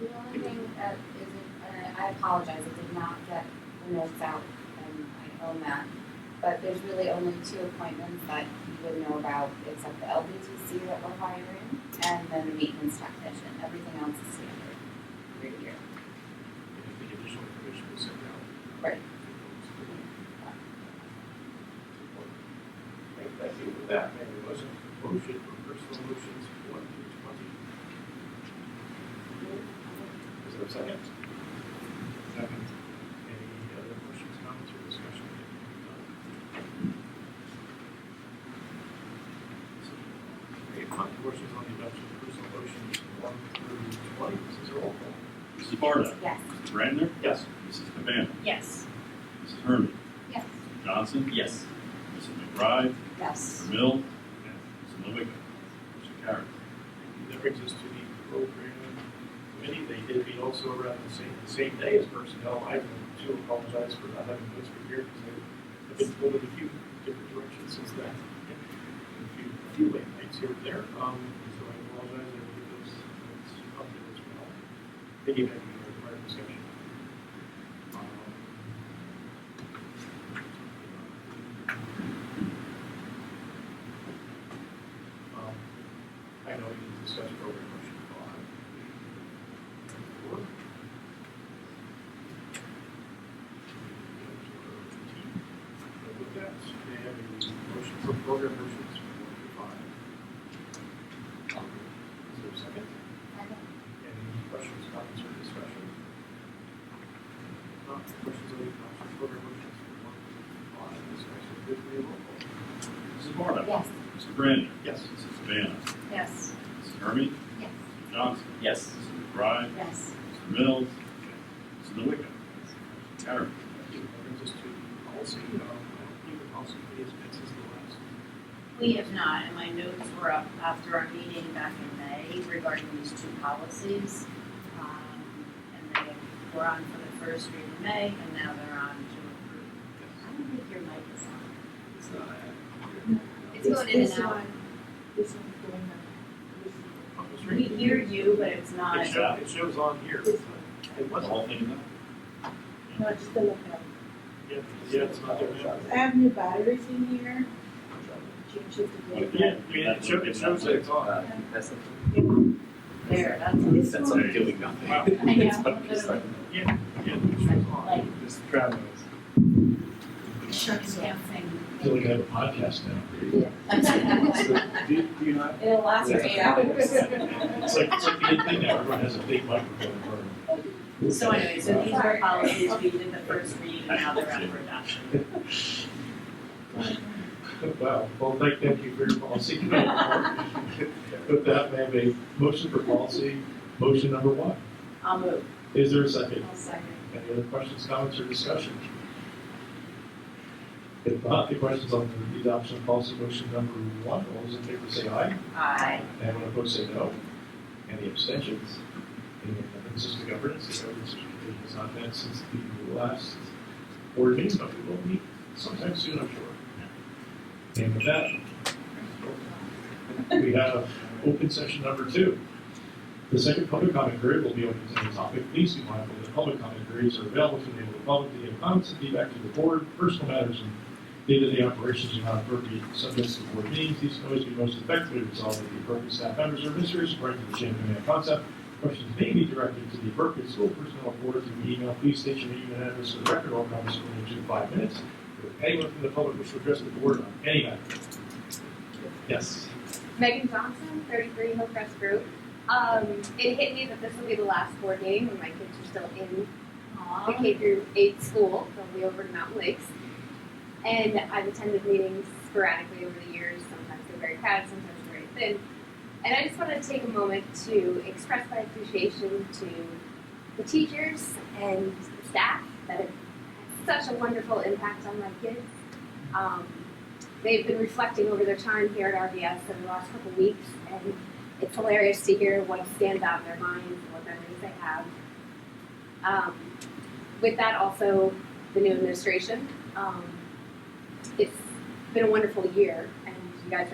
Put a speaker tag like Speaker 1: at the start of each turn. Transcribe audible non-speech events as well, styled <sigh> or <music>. Speaker 1: One thing that isn't, uh, I apologize, I did not get the notes out, and I own that. But there's really only two appointments that you would know about, except the LDTC that we're hiring, and then the maintenance technician, everything else is standard, year to year.
Speaker 2: If the additional information was sent out.
Speaker 1: Right.
Speaker 2: Thank you for that. May I have a motion? Motion for personal motions, one through twenty. Is there a second? Second. Any other questions, comments, or discussion? Okay, my questions on the adoption of personal motions, one through twenty, this is a roll call.
Speaker 3: Mrs. Barda.
Speaker 1: Yes,
Speaker 3: Mr. Brandner.
Speaker 2: Yes.
Speaker 3: Mrs. Cabana.
Speaker 4: Yes.
Speaker 3: Mrs. Herman.
Speaker 1: yes.
Speaker 3: Mr. Johnson.
Speaker 5: Yes.
Speaker 3: Mrs. McBride.
Speaker 4: Yes.
Speaker 3: Mr. Mill.
Speaker 2: Yes.
Speaker 3: Mrs. Novick. Motion carries.
Speaker 2: That brings us to the program committee. They did meet also around the same, the same day as personnel. I do apologize for not having this for here because I've been pulled in a few different directions since then. A few, a few late nights here and there. Um, so I apologize. I will get those, those updated as well. They gave that in prior discussion. Um, um, I know we can discuss program motion five. Four. So With that, may I have a motion for program motions four through five? Is there a second? Any questions, comments, or discussion? If Not questions or comments for program motions for one through five, this is actually good for your roll call.
Speaker 3: Mrs. Barda.
Speaker 1: Yes,
Speaker 3: Mr.
Speaker 2: Yes.
Speaker 3: Brandner. Mrs. Cabana.
Speaker 4: Yes.
Speaker 3: Mrs. Herman.
Speaker 1: yes,
Speaker 3: Mr. Johnson.
Speaker 5: Yes.
Speaker 3: Mrs. McBride.
Speaker 1: yes.
Speaker 3: Mr. Mills. Mrs. Novick. Motion carries.
Speaker 2: That brings us to policy, um, I don't believe the policy committee has been since the last.
Speaker 4: We have not, and my notes were up after our meeting back in May regarding these two policies. Um, And they were on for the first read in May, and now they're on to approve. I don't think your mic is
Speaker 2: It's uh,
Speaker 4: on.
Speaker 2: not.
Speaker 4: It's going in and out.
Speaker 6: This one's going on.
Speaker 4: We hear you, but it's not.
Speaker 2: It shows, it shows on here.
Speaker 6: This
Speaker 2: It
Speaker 3: The
Speaker 2: wasn't,
Speaker 3: whole thing is up.
Speaker 6: No, just the lookout.
Speaker 2: yeah, yeah, it's not there now.
Speaker 6: I have new batteries in here. Change it to
Speaker 3: Yeah.
Speaker 6: blue.
Speaker 2: Yeah, I mean, it shows, it shows that it's on.
Speaker 5: Uh, That's a-
Speaker 4: There, that's.
Speaker 6: This
Speaker 5: that's
Speaker 6: one,
Speaker 5: not doing nothing.
Speaker 7: <laughs>
Speaker 2: Wow.
Speaker 4: I know.
Speaker 5: It's not- it's not-
Speaker 2: Yeah, yeah, it shows on.
Speaker 4: Like-
Speaker 2: Just traveling.
Speaker 4: Shucks, yeah, thing.
Speaker 7: Really good podcast now.
Speaker 3: Do do you not?
Speaker 1: It'll <laughs>
Speaker 6: <laughs>
Speaker 1: last for eight hours.
Speaker 7: It's like, it's like the end thing now, everyone has a big microphone. for them.
Speaker 4: <laughs> So anyway, so these were policies we did the first read, and now they're up for adoption.
Speaker 7: oh, Wow, well, thank, thank you for your
Speaker 2: <laughs>
Speaker 7: policy. With that, may I have a motion for policy, motion number one.
Speaker 4: I'll move.
Speaker 7: Is there a second?
Speaker 1: I'll second.
Speaker 7: Any other questions, comments, or discussion? If not, the questions on the adoption of policy motion number one, all those in favor say aye.
Speaker 4: Aye.
Speaker 7: Anyone opposed say no. Any abstentions? Any consistent governance, "Oh, the governance committee has not met since the last board meeting, but we will meet sometime soon, I'm sure. And with that, we have open session number two. The second public comment period will be open to any topic. Please be mindful that public comment periods are available to enable the public to give comments and feedback to the board, personal matters, and day-to-day operations are not appropriate subjects of board meetings, these can always be most effectively resolved with the appropriate staff members or administrators according to the chain of command concept. Questions may be directed to the appropriate school personnel or board through email. Please state your name and address for the record. All comments will be to five minutes. If anyone from the public wishes to address the board on any matter. Yes.
Speaker 8: Megan Johnson, 33 Hillcrest Group. Um, it hit me that this will be the last board meeting when my kids are still in the K through 8 school. They'll be over to Mountain Lakes. And I've attended meetings sporadically over the years. Sometimes they're very crowded, sometimes they're very thin. And I just wanted to take a moment to express my appreciation to the teachers and the staff that have had such a wonderful impact on my kids. Um, they've been reflecting over their time here at RBS over the last couple of weeks, and it's hilarious to hear what stands out in their minds and what memories they have. Um, with that, also the new administration. Um, it's been a wonderful year